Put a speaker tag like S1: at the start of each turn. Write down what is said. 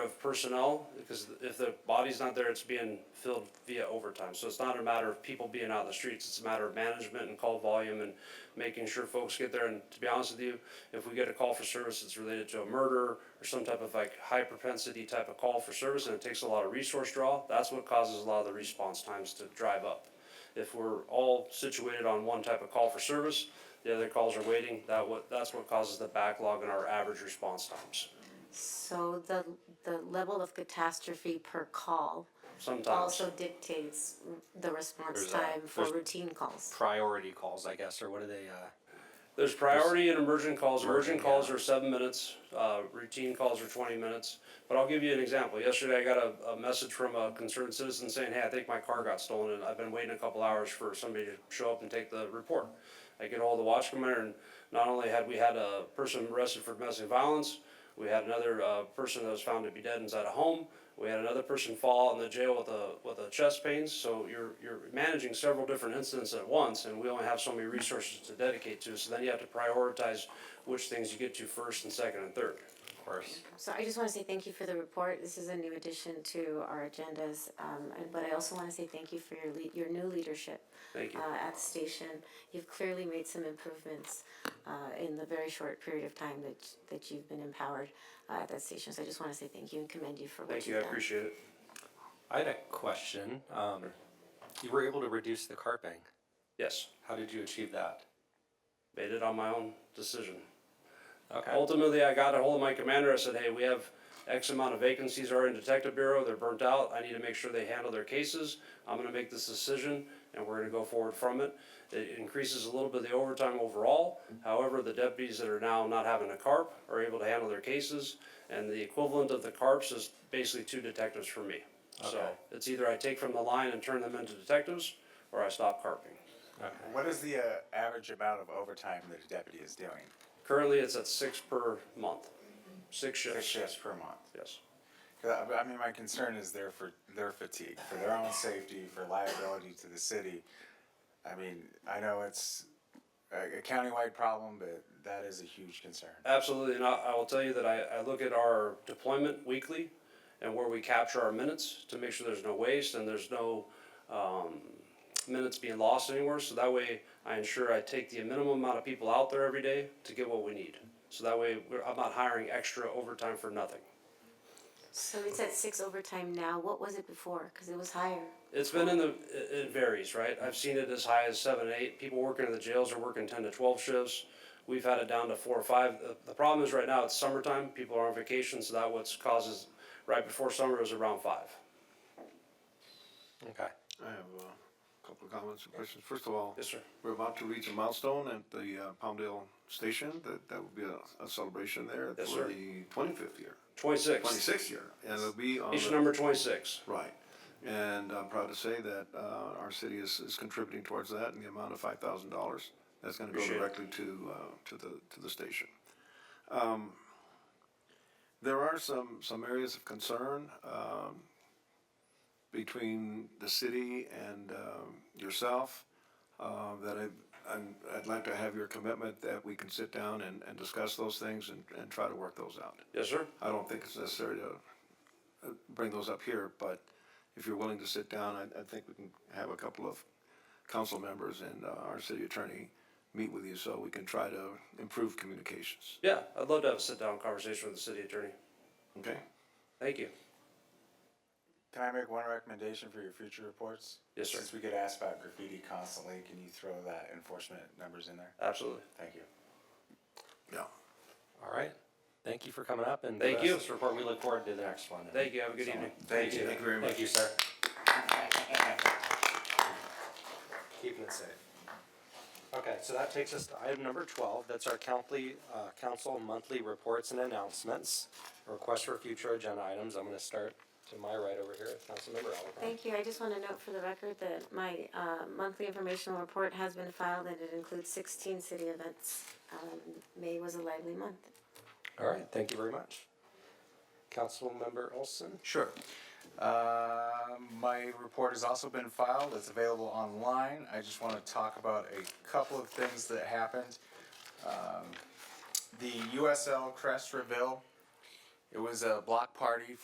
S1: personnel, because if the body's not there, it's being filled via overtime. So it's not a matter of people being out in the streets, it's a matter of management and call volume and making sure folks get there. And to be honest with you, if we get a call for service that's related to a murder or some type of like high propensity type of call for service, and it takes a lot of resource draw, that's what causes a lot of the response times to drive up. If we're all situated on one type of call for service, the other calls are waiting, that what, that's what causes the backlog in our average response times,
S2: So the, the level of catastrophe per call
S1: sometimes.
S2: also dictates the response
S3: There's a-
S2: time for
S3: there's-
S2: routine calls.
S3: priority calls, I guess, or what are they? Uh,
S1: There's priority and emergent calls, emergent
S3: Emergent,
S1: calls
S3: yeah.
S1: are seven minutes, uh, routine calls are twenty minutes. But I'll give you an example, yesterday I got a, a message from a concerned citizen saying, hey, I think my car got stolen and I've been waiting a couple hours for somebody to show up and take the report. I get hold of the watch commander and not only had we had a person arrested for domestic violence, we had another, uh, person that was found to be dead inside a home. We had another person fall in the jail with a, with a chest pains, so you're, you're managing several different incidents at once, and we only have so many resources to dedicate to, so then you have to prioritize which things you get to first and second and third.
S3: of course.
S2: So I just wanna say thank you for the report. This is a new addition to our agendas. Um, and- but I also wanna say thank you for your lead, your new leadership.
S1: Thank you.
S2: Uh, at the station. You've clearly made some improvements, uh, in the very short period of time that, that you've been empowered, uh, at that station. So I just wanna say thank you and commend you for what you've
S1: Thank
S2: done.
S1: you, I appreciate it.
S3: I had a question. Um, you were able to reduce the carping.
S1: Yes,
S3: How did you achieve that?
S1: made it on my own decision.
S3: Okay.
S1: Ultimately, I got a hold of my commander, I said, hey, we have X amount of vacancies already in detective bureau, they're burnt out, I need to make sure they handle their cases. I'm gonna make this decision, and we're gonna go forward from it. It increases a little bit of the overtime overall, however, the deputies that are now not having a carp are able to handle their cases, and the equivalent of the carps is basically two detectives for me. So,
S3: Okay.
S1: it's either I take from the line and turn them into detectives, or I stop carping.
S3: okay.
S4: What is the uh, average amount of overtime that a deputy is doing?
S1: Currently, it's at six per month, six
S4: Six
S1: shifts,
S4: shifts per month.
S1: yes.
S4: 'Cause I I mean, my concern is their for their fatigue, for their own safety, for liability to the city. I mean, I know it's a, a countywide problem, but that is a huge concern.
S1: Absolutely, and I, I will tell you that I, I look at our deployment weekly and where we capture our minutes to make sure there's no waste and there's no, um, minutes being lost anywhere, so that way I ensure I take the minimum amount of people out there every day to get what we need. So that way, we're, I'm not hiring extra overtime for nothing.
S2: So it's at six overtime now. What was it before? Cause it was higher.
S1: It's been in the, it, it varies, right? I've seen it as high as seven, eight. People working in the jails are working ten to twelve shifts. We've had it down to four or five. The, the problem is right now, it's summertime, people are on vacation, so that what's causes, right before summer it was around five.
S3: Okay.
S5: I have uh, a couple of comments and questions. First of all,
S1: Yes, sir.
S5: we're about to reach a milestone at the uh, Palmdale Station. That that will be a, a celebration there
S1: Yes,
S5: for
S1: sir.
S5: the 25th year,
S1: Twenty-six,
S5: 26th year, and it'll be on
S1: Station
S5: the-
S1: number twenty-six.
S5: right. And I'm proud to say that uh, our city is, is contributing towards that in the amount of five thousand dollars. That's going to go
S1: Appreciate it.
S5: directly to uh, to the to the station. Um, There are some, some areas of concern, um, between the city and, um, yourself, uh, that I, I'm, I'd like to have your commitment that we can sit down and, and discuss those things and, and try to work those out.
S1: Yes, sir.
S5: I don't think it's necessary to uh, bring those up here, but if you're willing to sit down, I, I think we can have a couple of council members and, uh, our city attorney meet with you so we can try to improve communications,
S1: Yeah, I'd love to have a sit-down conversation with the city attorney.
S5: okay?
S1: Thank you.
S4: Can I make one recommendation for your future reports?
S1: Yes, sir.
S4: Since we get asked about graffiti constantly, can you throw that enforcement numbers in there?
S1: Absolutely.
S4: Thank you.
S5: Yeah.
S3: All right. Thank you for coming up and
S1: Thank
S3: giving us
S1: you.
S3: This report. We look forward to the next one.
S1: Thank you. Have a good evening.
S4: Thank you. Thank you very
S3: Thank you, sir. Keeping it safe. Okay, so that takes us to item number twelve, that's our countly, uh, council monthly reports and announcements. Request for future agenda items, I'm gonna start to my right over here, Councilmember Alvarado.
S2: Thank you. I just want to note for the record that my uh, monthly informational report has been filed and it includes sixteen city events. Um, May was a lively month.
S3: All right, thank you very much. Councilmember Olson?
S4: Sure. Uh, my report has also been filed. It's available online. I just want to talk about a couple of things that happened. Um, the USL Crest Reveal. It was a block party